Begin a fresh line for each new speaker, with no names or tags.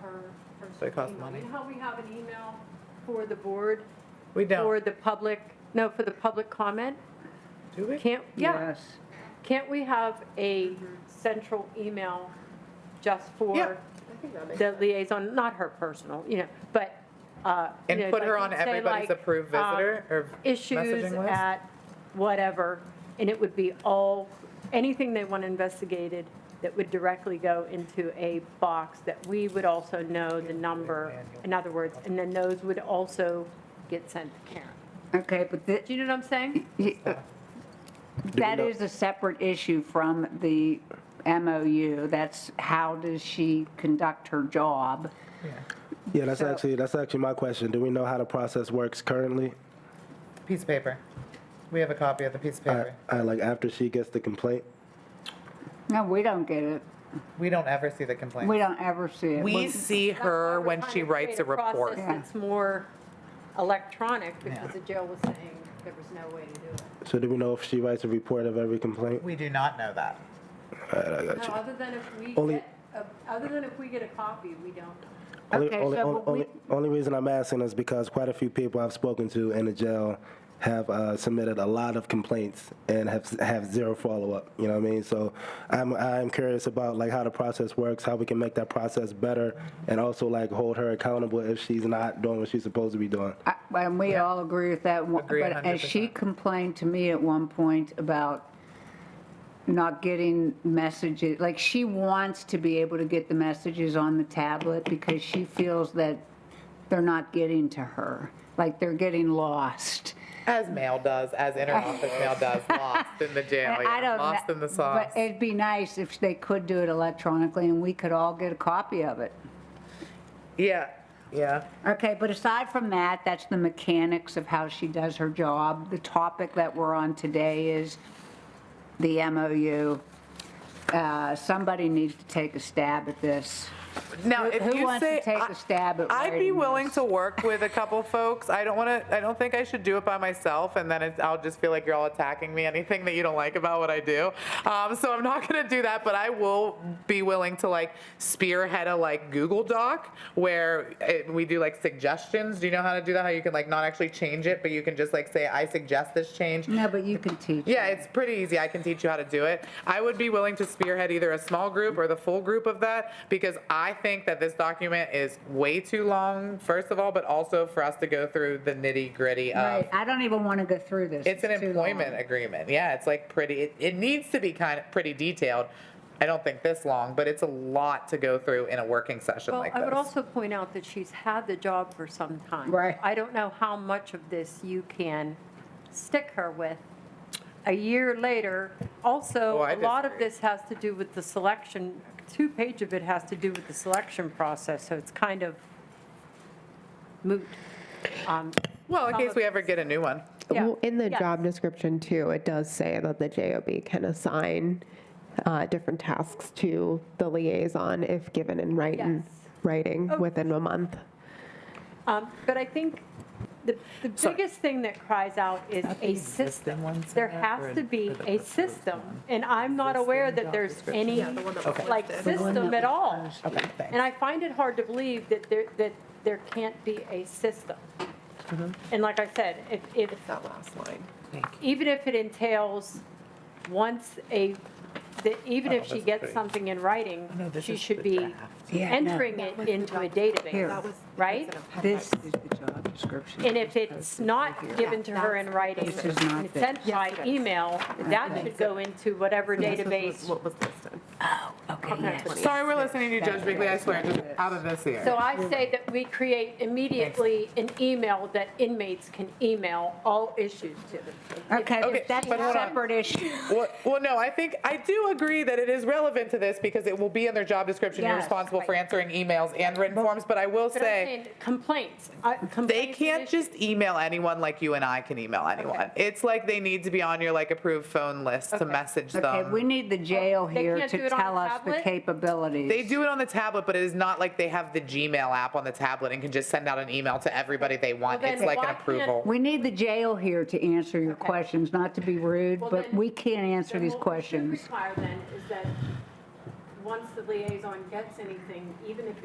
per.
They cost
email.
money.
You know how we have an email for the board?
We
For
don't,
the public, no, for the public comment?
do we?
Can't, yeah,
Yes.
can't we have a central email just
Yeah.
for the liaison, not her personal, you know, but, uh. you know,
And put her
like,
on
say,
everybody's
like,
approved
um,
visitor or
issues
messaging list?
at whatever, and it would be all, anything they want investigated that would directly go into a box that we would also know the number, in other words, and then those would also get sent to Karen.
Okay, but thi-
Do you know what I'm saying?
y- uh, that
know-
is a separate issue from the MOU. That's how does she conduct her job?
Yeah, that's
So-
actually, that's actually my question. Do we know how the process works currently?
Piece of paper. We have a copy of the piece of
Uh,
paper.
uh, like after she gets the complaint?
No, we don't get it.
We don't ever see the complaint.
We don't ever see it.
We see her
That's why we're
when
trying
she
to
writes
create
a report.
process that's more electronic, because
Yeah.
the jail was saying there was no way to do it.
So do we know if she writes a report of every complaint?
We do not know that.
Alright, I got
No,
you.
other than if we
Only-
get, a- other than if we get a copy, we don't.
Only,
Okay,
only,
so
only,
what we-
only, only reason I'm asking is because quite a few people I've spoken to in the jail have uh, submitted a lot of complaints and have have zero follow up. You know what I mean? So I'm I'm curious about like how the process works, how we can make that process better, and also like hold her accountable if she's not doing what she's supposed to be doing.
I- And we all agree with that. one-
Agree
But as she
100%.
complained to me at one point about not getting messages, like she wants to be able to get the messages on the tablet because she feels that they're not getting to her, like they're getting lost.
As mail does, as interoffice mail does, lost in the jail,
And I
Oh, yeah,
don't
lost
kn-
in the sauce.
But it'd be nice if they could do it electronically and we could all get a copy of it.
Yeah, yeah.
Okay, but aside from that, that's the mechanics of how she does her job. The topic that we're on today is the MOU. Uh, Somebody needs to take a stab at this.
Now,
Who-
if
who
you
wants to
say,
take
I-
a stab at
I'd be
writing
willing
this?
to work with a couple folks. I don't want to. I don't think I should do it by myself, and then it's, I'll just feel like you're all attacking me. Anything that you don't like about what I do. Um, so I'm not going to do that. But I will be willing to like spearhead a like Google Doc where it, we do like suggestions. Do you know how to do that? How you can like not actually change it, but you can just like say I suggest this change.
No, but you can teach.
Yeah, it's pretty easy. I can teach you how to do it. I would be willing to spearhead either a small group or the full group of that because I think that this document is way too long, first of all, but also for us to go through the nitty gritty of.
Right, I don't even want to go through this.
um, It's an
too long.
employment agreement. Yeah, it's like pretty, it, it needs to be kind of pretty detailed. I don't think this long, but it's a lot to go through in a working session
Well,
like
I would
this.
also point out that she's had the job for some time.
Right.
I don't know how much of this you can stick her with. A year later, also,
Oh, I
a lot of
disagree.
this has to do with the selection, two page of it has to do with the selection process, so it's kind of moot. Um,
Well, in case we ever get a new one.
Yeah.
Well, In the
Yes.
job description too, it does say that the JOB can assign uh, different tasks to the liaison if given in writing,
Yes. Oh.
writing within a month.
Um, But I think the, the
Sorry.
biggest thing that cries out is a system.
ones in
There
there or
has
in-
to be a system, and I'm not aware that there's any, like, system at all.
Okay, thanks.
And I find it hard to believe that there, that there can't be a system.
Mm-hmm.
And like I said, if, if,
that last line.
even if it entails, once a, that even if she
Oh, that's
gets
great.
something in writing,
No, this
she
is
should
the
be
draft.
Yeah, no.
entering it
was the
into a
document.
database,
Here.
That was-
right?
that's in a
This
packet.
is the job description.
And if it's not given to her in writing,
This is not
and it's sent
Yes,
by
it is.
email, that should go into whatever
This is
database.
What was listed.
Okay, yes.
Sorry, we're listening to you, Judge Bigley. I swear, just out of this here.
So I say that we create immediately an email that inmates can email all issues to.
Okay,
Okay,
if that's
but
a
hold on.
separate issue.
Well, well, no, I think, I do agree that it is relevant to this because it will be in their job description. You're
Yes.
responsible for answering emails and written forms, but I will
But I'm
say,
saying complaints, uh, complaints.
they can't
issues.
just email anyone like you and I can email anyone. It's like they need to be on your like approved phone list to message
Okay, we
them.
need the jail
They
here
can't do
to
it on a
tell us the
tablet?
capabilities.
They do it on the tablet, but it is not like they have the Gmail app on the tablet and can just send out an email to everybody they want.
Well, then
It's like an
why can't-
approval.
We need the jail here to answer your
Okay.
questions, not to be rude,
Well,
but
then-
we can't answer
Then
these
what we should
questions.
require then is that, once the liaison gets anything, even if